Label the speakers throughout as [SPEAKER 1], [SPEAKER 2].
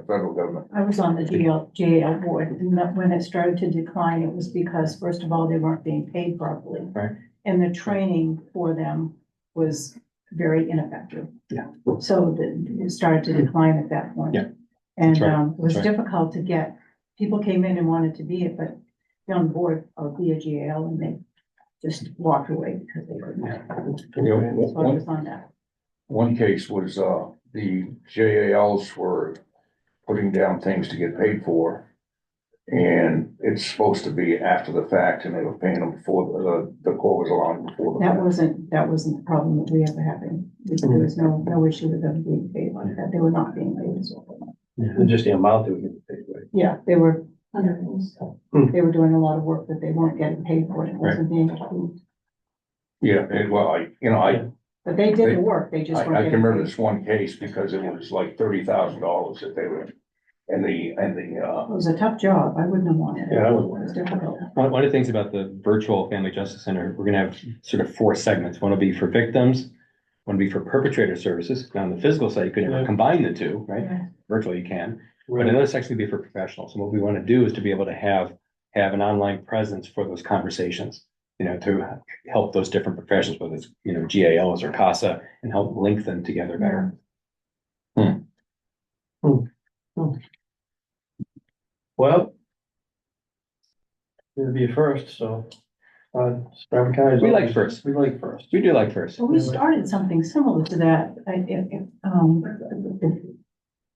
[SPEAKER 1] the federal government.
[SPEAKER 2] I was on the GL, GAL board, and that when it started to decline, it was because, first of all, they weren't being paid properly.
[SPEAKER 3] Right.
[SPEAKER 2] And the training for them was very ineffective.
[SPEAKER 3] Yeah.
[SPEAKER 2] So the, it started to decline at that point.
[SPEAKER 3] Yeah. That's
[SPEAKER 2] And,
[SPEAKER 3] right.
[SPEAKER 2] um, it was
[SPEAKER 3] That's right.
[SPEAKER 2] difficult to get, people came in and wanted to be it, but they're on the board uh, of the GAL, and they just walked away because they couldn't.
[SPEAKER 1] You know, one-
[SPEAKER 2] So I
[SPEAKER 1] one,
[SPEAKER 2] was on that.
[SPEAKER 1] one case was, uh, the JALs were putting down things to get paid for. And it's supposed to be after the fact and they were paying them before the, the court was allowing before the.
[SPEAKER 2] That
[SPEAKER 1] fact.
[SPEAKER 2] wasn't, that wasn't the problem that we ever had. There was no, no issue with them being paid like that. They were not being paid as well.
[SPEAKER 3] It's Just the amount that we get paid, right?
[SPEAKER 2] Yeah, they were,
[SPEAKER 3] Hmm.
[SPEAKER 2] they were doing a lot of work that they weren't getting paid for. It wasn't being approved.
[SPEAKER 1] Yeah, it, well, I, you know, I,
[SPEAKER 2] But they did
[SPEAKER 1] They-
[SPEAKER 2] the work. They just
[SPEAKER 1] I, I
[SPEAKER 2] weren't
[SPEAKER 1] can
[SPEAKER 2] getting
[SPEAKER 1] remember
[SPEAKER 2] paid.
[SPEAKER 1] this one case because it was like thirty thousand dollars that they were. And the, and the, uh,
[SPEAKER 2] It was a tough job. I wouldn't have wanted it.
[SPEAKER 3] Yeah, I was
[SPEAKER 2] It was
[SPEAKER 3] wondering.
[SPEAKER 2] difficult.
[SPEAKER 4] One, one of the things about the virtual Family Justice Center, we're gonna have sort of four segments. One will be for victims, one will be for perpetrator services. Now, on the physical side, you could never
[SPEAKER 3] Yeah.
[SPEAKER 4] combine the two, right?
[SPEAKER 2] Yeah.
[SPEAKER 4] Virtually, you can. But another section would be for professionals. And what we want to do is to be able to have, have an online presence for those conversations. You know, to help those different professions, whether it's, you know, GALs or CASA, and help link them together better.
[SPEAKER 3] Well. It'll be a first, so. Uh, Stratford County. is
[SPEAKER 4] We like
[SPEAKER 3] always-
[SPEAKER 4] first.
[SPEAKER 3] We like first.
[SPEAKER 4] We do like first.
[SPEAKER 2] So we started something similar to that, I, I- um,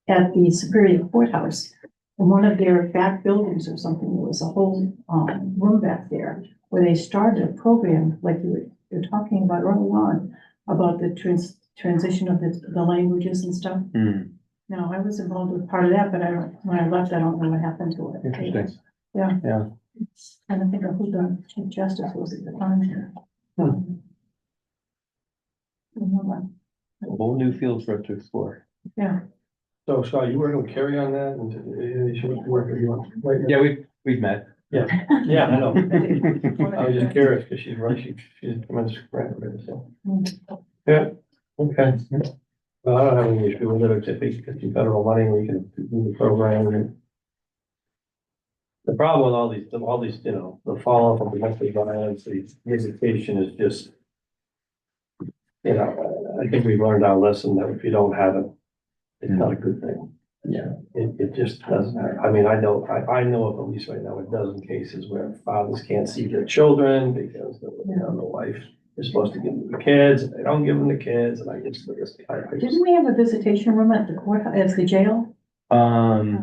[SPEAKER 2] at the Superior Courthouse. In one of their back buildings or something, there was a whole, um, room back there where they started a program, like you were, you're talking about early on, about the trans, transition of the, the languages and stuff.
[SPEAKER 4] Hmm,
[SPEAKER 2] Now, I was involved with part of that, but I don't, when I left, I don't know what happened to it.
[SPEAKER 4] interesting.
[SPEAKER 2] And I think of who the chief justice was at the time here.
[SPEAKER 3] Hmm.
[SPEAKER 2] Remember,
[SPEAKER 4] Whole new fields for us to explore.
[SPEAKER 2] Yeah.
[SPEAKER 3] So, Scott, you working with Carrie on that? And uh, you should work with you on. right?
[SPEAKER 4] Yeah, we've, we've met.
[SPEAKER 3] Yeah, I know. I was just
[SPEAKER 2] Well,
[SPEAKER 3] curious, because she's right, she, she's a tremendous grammar, so.
[SPEAKER 2] Hmm.
[SPEAKER 3] Yeah, okay. Well, I don't have any issue with it, except because you federal money, we can do the program and. The problem with all these, all these, you know, the falloff of domestic violence, the education is just. You know, I think we've learned our lesson that if you don't have it, it's not a good thing.
[SPEAKER 4] Yeah.
[SPEAKER 3] It, it just doesn't, have- I mean, I know, I, I know of at least right now a dozen cases where fathers can't see their children because, the- you know, the wife is supposed to give them the kids, and they don't give them the kids, and I just, I just- I, I just.
[SPEAKER 2] Didn't we have a visitation room at the court, at the jail
[SPEAKER 4] Um.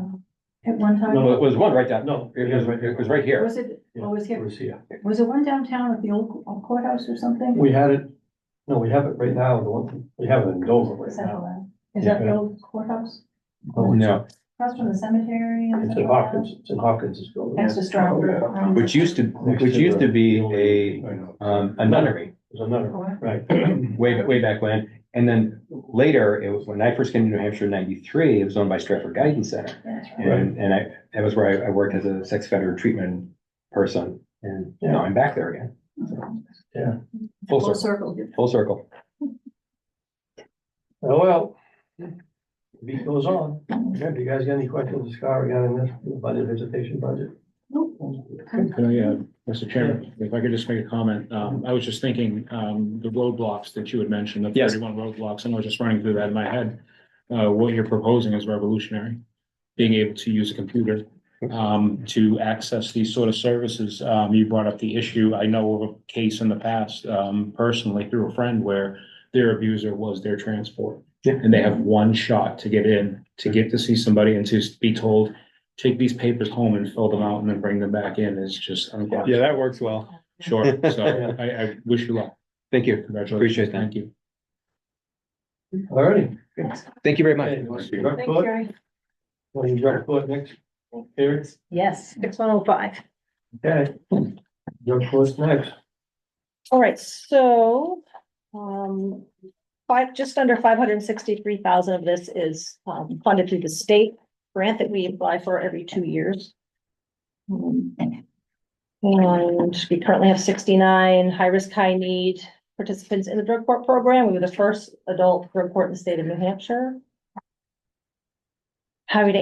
[SPEAKER 2] um, at one
[SPEAKER 4] Well,
[SPEAKER 2] time?
[SPEAKER 4] it was one right down,
[SPEAKER 3] No,
[SPEAKER 4] it was, it was right here.
[SPEAKER 2] Was it,
[SPEAKER 3] Yeah,
[SPEAKER 2] or was
[SPEAKER 3] It
[SPEAKER 2] it,
[SPEAKER 3] was here.
[SPEAKER 2] was it one downtown at the old courthouse or something?
[SPEAKER 3] We had it, no, we have it right now, the one, we have it in Dover right
[SPEAKER 5] Is that the
[SPEAKER 3] now.
[SPEAKER 5] one?
[SPEAKER 2] Is that the old courthouse?
[SPEAKER 4] Oh, no.
[SPEAKER 5] Across from the cemetery? and
[SPEAKER 3] It's
[SPEAKER 5] stuff
[SPEAKER 3] in
[SPEAKER 5] like that?
[SPEAKER 3] Hawkins, it's in Hawkins, it's building.
[SPEAKER 5] Next to Stratford. um,
[SPEAKER 4] Which used to, which used to be a,
[SPEAKER 1] I know.
[SPEAKER 4] um, a nunnery
[SPEAKER 3] There's another,
[SPEAKER 2] Or-
[SPEAKER 3] right.
[SPEAKER 4] way, ba- way back when. And then later, it was, when I first came to New Hampshire in ninety-three, it was owned by Stratford Guidance Center.
[SPEAKER 5] Yeah, that's right.
[SPEAKER 4] And, and I, that was where I, I worked as a sex offender treatment person. And now I'm back there again.
[SPEAKER 3] Yeah.
[SPEAKER 4] Full
[SPEAKER 2] Full
[SPEAKER 4] circle,
[SPEAKER 2] circle.
[SPEAKER 4] full circle.
[SPEAKER 3] Oh, well. Beat goes on. Yeah, do you guys got any questions, Scott, regarding this budget, visitation budget?
[SPEAKER 6] Could I, uh, Mr. Chairman, if I could just make a comment, um, I was just thinking, um, the roadblocks that you had mentioned, the
[SPEAKER 4] Yes.
[SPEAKER 6] thirty-one roadblocks, and I was just running through that in my head. Uh, what you're proposing is revolutionary, being able to use a computer, um, to access these sort of services. Um, you brought up the issue, I know of a case in the past, um, personally through a friend where their abuser was their transport.
[SPEAKER 4] Yeah.
[SPEAKER 6] And they have one shot to get in, to get to see somebody and to be told, take these papers home and fill them out and then bring them back in is just, I'm glad.
[SPEAKER 4] Yeah, that works well.
[SPEAKER 6] Sure, so I, I wish you luck.
[SPEAKER 4] Thank you.
[SPEAKER 6] Congratulations.
[SPEAKER 4] Appreciate that.
[SPEAKER 6] Thank you.
[SPEAKER 3] All righty.
[SPEAKER 4] Thank you very much.
[SPEAKER 3] Okay, want to direct
[SPEAKER 2] Thank
[SPEAKER 3] vote?
[SPEAKER 2] you.
[SPEAKER 3] Want to direct vote next? Here,
[SPEAKER 7] Yes, six one oh five.
[SPEAKER 3] okay. Direct vote's next.
[SPEAKER 7] All right, so, um, five, just under five hundred and sixty-three thousand of this is, um, funded through the state grant that we apply for every two years. Um, And we currently have sixty-nine high-risk, high-need participants in the drug court program. We were the first adult drug court in the state of New Hampshire. Highway to